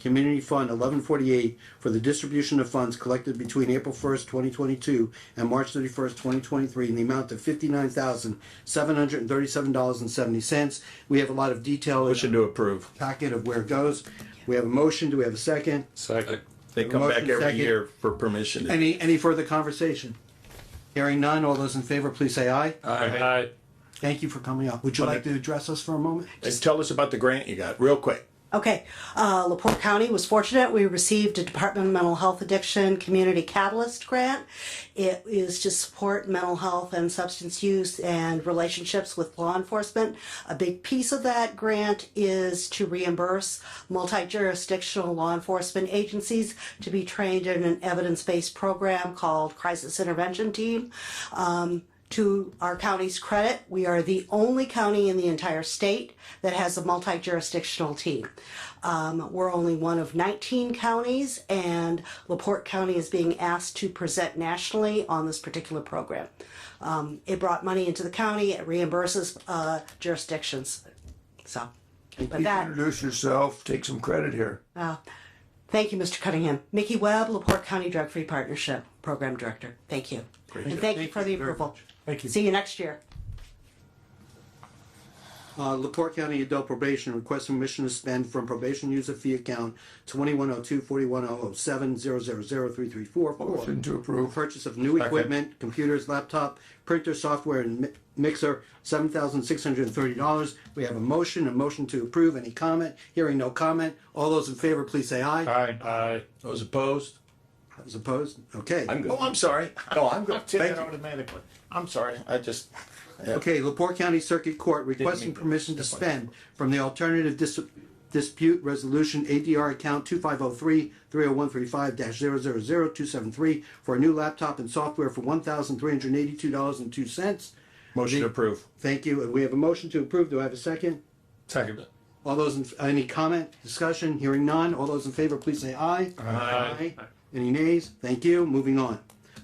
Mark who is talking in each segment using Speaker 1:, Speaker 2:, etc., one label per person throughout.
Speaker 1: Community Fund eleven forty-eight for the distribution of funds collected between April first, twenty twenty-two and March thirty-first, twenty twenty-three in the amount of fifty-nine thousand, seven hundred and thirty-seven dollars and seventy cents. We have a lot of detail in
Speaker 2: Motion to approve.
Speaker 1: the packet of where it goes. We have a motion. Do we have a second?
Speaker 2: Second. They come
Speaker 1: Motion
Speaker 2: back every
Speaker 1: second.
Speaker 2: year for permission.
Speaker 1: Any, any further conversation? Hearing none. All those in favor, please say aye.
Speaker 3: Aye.
Speaker 1: Thank you for coming up. Would you like to address us for a moment?
Speaker 2: And tell us about the grant you got, real quick.
Speaker 4: Okay, uh, Laporte County was fortunate. We received a Department of Mental Health Addiction Community Catalyst Grant. It is to support mental health and substance use and relationships with law enforcement. A big piece of that grant is to reimburse multi jurisdictional law enforcement agencies to be trained in an evidence based program called Crisis Intervention Team. Um, to our county's credit, we are the only county in the entire state that has a multi jurisdictional team. Um, we're only one of 19 counties, and LaPorte County is being asked to present nationally on this particular program. Um, it brought money into the county, it reimburses uh, jurisdictions. So, but that,
Speaker 5: Introduce yourself, take some credit here.
Speaker 4: thank you, Mr. Cunningham. Mickey Webb, LaPorte County Drug Free Partnership Program Director. Thank you. And thank you for the
Speaker 1: very
Speaker 4: approval.
Speaker 1: much.
Speaker 4: Thank you. See you next year.
Speaker 1: Uh, Laporte County Adult Probation requests permission to spend from probation user fee account twenty-one oh two forty-one oh oh seven zero zero zero three three four four.
Speaker 5: Motion to approve.
Speaker 1: Purchase of new equipment, computers, laptop, printer, software, and mi- mixer, seven thousand six hundred and thirty dollars. We have a motion, a motion to approve. Any comment? Hearing no comment. All those in favor, please say aye.
Speaker 3: Aye. Aye.
Speaker 2: Those opposed?
Speaker 1: Those opposed? Okay.
Speaker 2: Oh, I'm sorry. No, I'm good.
Speaker 6: Did
Speaker 2: Thank
Speaker 6: that
Speaker 2: you.
Speaker 6: automatically.
Speaker 2: I'm sorry. I just,
Speaker 1: Okay, Laporte County Circuit Court requesting permission to spend from the Alternative Dis- Dispute Resolution ADR account two five oh three three oh one three five dash zero zero zero two seven three for a new laptop and software for one thousand three hundred eighty-two dollars and two cents.
Speaker 2: motion to approve.
Speaker 1: Thank you. And we have a motion to approve. Do I have a second?
Speaker 2: Second.
Speaker 1: All those, in any comment, discussion, hearing none, all those in favor, please say aye. Aye. Any nays? Thank you, moving on.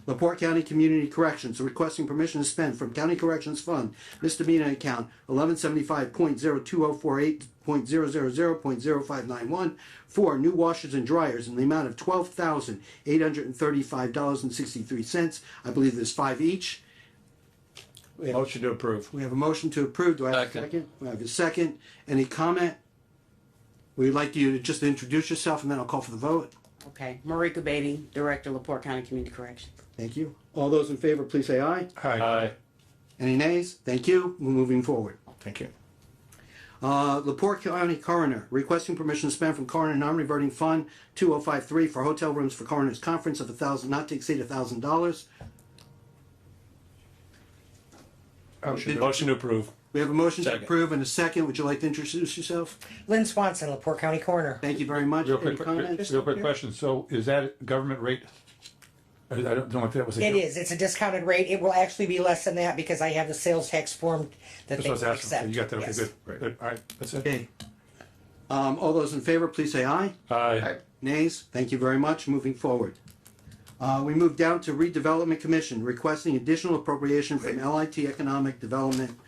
Speaker 1: Laporte County Community Corrections requesting permission to spend from County Corrections Fund misdemeanor account eleven seventy-five point zero two oh four eight point zero zero zero point zero five nine one for new washers and dryers in the amount of twelve thousand eight hundred and thirty-five dollars and sixty-three cents. I believe there's five each.
Speaker 2: Motion to approve.
Speaker 1: We have a motion to approve. Do I have a
Speaker 3: Second.
Speaker 1: second? We have a second. Any comment? We'd like you to just introduce yourself and then I'll call for the vote.
Speaker 7: Okay, Marika Beatty, Director, Laporte County Community Corrections.
Speaker 1: Thank you. All those in favor, please say aye.
Speaker 3: Aye.
Speaker 1: Any nays? Thank you. We're moving forward.
Speaker 2: Thank you.
Speaker 1: Uh, Laporte County Coroner requesting permission to spend from Coroner Non-Reverting Fund two oh five three for hotel rooms for Coroner's Conference of a thousand, not to exceed a thousand dollars. Oh,
Speaker 3: Motion to approve.
Speaker 1: We have a motion to
Speaker 2: Second.
Speaker 1: approve and a second. Would you like to introduce yourself?
Speaker 8: Lynn Swanson, Laporte County Coroner.
Speaker 1: Thank you very much.
Speaker 9: Real
Speaker 1: Any
Speaker 9: quick,
Speaker 1: comments?
Speaker 9: real quick question, so is that a government rate? I I don't know if that was a.
Speaker 8: It is, it's a discounted rate. It will actually be less than that because I have the sales tax form that
Speaker 9: That's
Speaker 8: they
Speaker 9: what I was asking,
Speaker 8: accept.
Speaker 9: So you got that, okay,
Speaker 8: Yes.
Speaker 9: good, good, all right, that's it.
Speaker 1: Okay. Um, all those in favor, please say aye.
Speaker 3: Aye.
Speaker 1: Nays, thank you very much, moving forward. Uh, we move down to redevelopment commission requesting additional appropriation from LIT Economic Development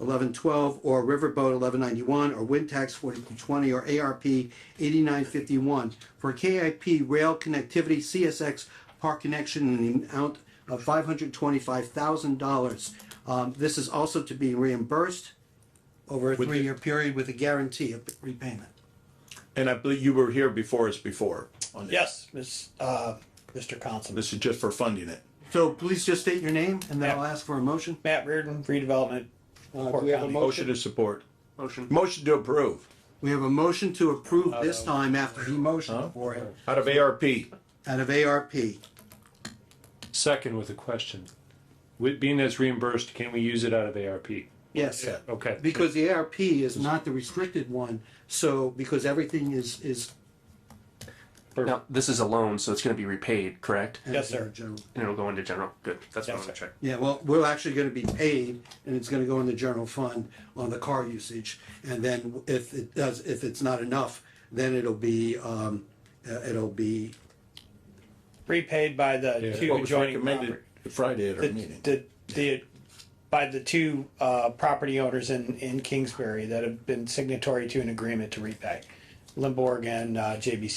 Speaker 1: eleven twelve or Riverboat eleven ninety-one or Wind Tax forty-two twenty or ARP eighty-nine fifty-one for KIP rail connectivity CSX park connection in the amount of five hundred twenty-five thousand dollars. Um, this is also to be reimbursed over a three-year period with a guarantee of repayment.
Speaker 2: And I believe you were here before us before. on this.
Speaker 6: Yes, Miss, uh, Mr. Councilman.
Speaker 2: This is just for funding it.
Speaker 1: So please just state your name and then I'll ask for a motion.
Speaker 6: Matt Reardon, redevelopment.
Speaker 1: Uh, do we have a
Speaker 2: Motion
Speaker 1: motion?
Speaker 2: to support. Motion. Motion to approve,
Speaker 1: We have a motion to approve this time after he motioned for it
Speaker 2: out of ARP.
Speaker 1: out of ARP.
Speaker 3: Second with a question. With, being that's reimbursed, can we use it out of ARP?
Speaker 1: Yes.
Speaker 3: Okay.
Speaker 1: Because the ARP is not the restricted one, so because everything is, is.
Speaker 10: Now, this is a loan, so it's going to be repaid, correct?
Speaker 6: Yes, sir.
Speaker 1: General.
Speaker 10: And it'll go into general. Good. That's what
Speaker 6: Yes,
Speaker 10: I want to
Speaker 6: sir.
Speaker 10: check.
Speaker 1: Yeah, well, we're actually gonna be paid and it's gonna go in the general fund on the car usage. And then if it does, if it's not enough, then it'll be, um, uh, it'll be,
Speaker 6: Repaid by the two
Speaker 2: What was
Speaker 6: adjoining
Speaker 2: recommended
Speaker 6: property.
Speaker 2: Friday at our meeting.
Speaker 6: The, the, the- by the two, uh, property owners in, in Kingsbury that have been signatory to an agreement to repay. Limborg and, uh, JBC.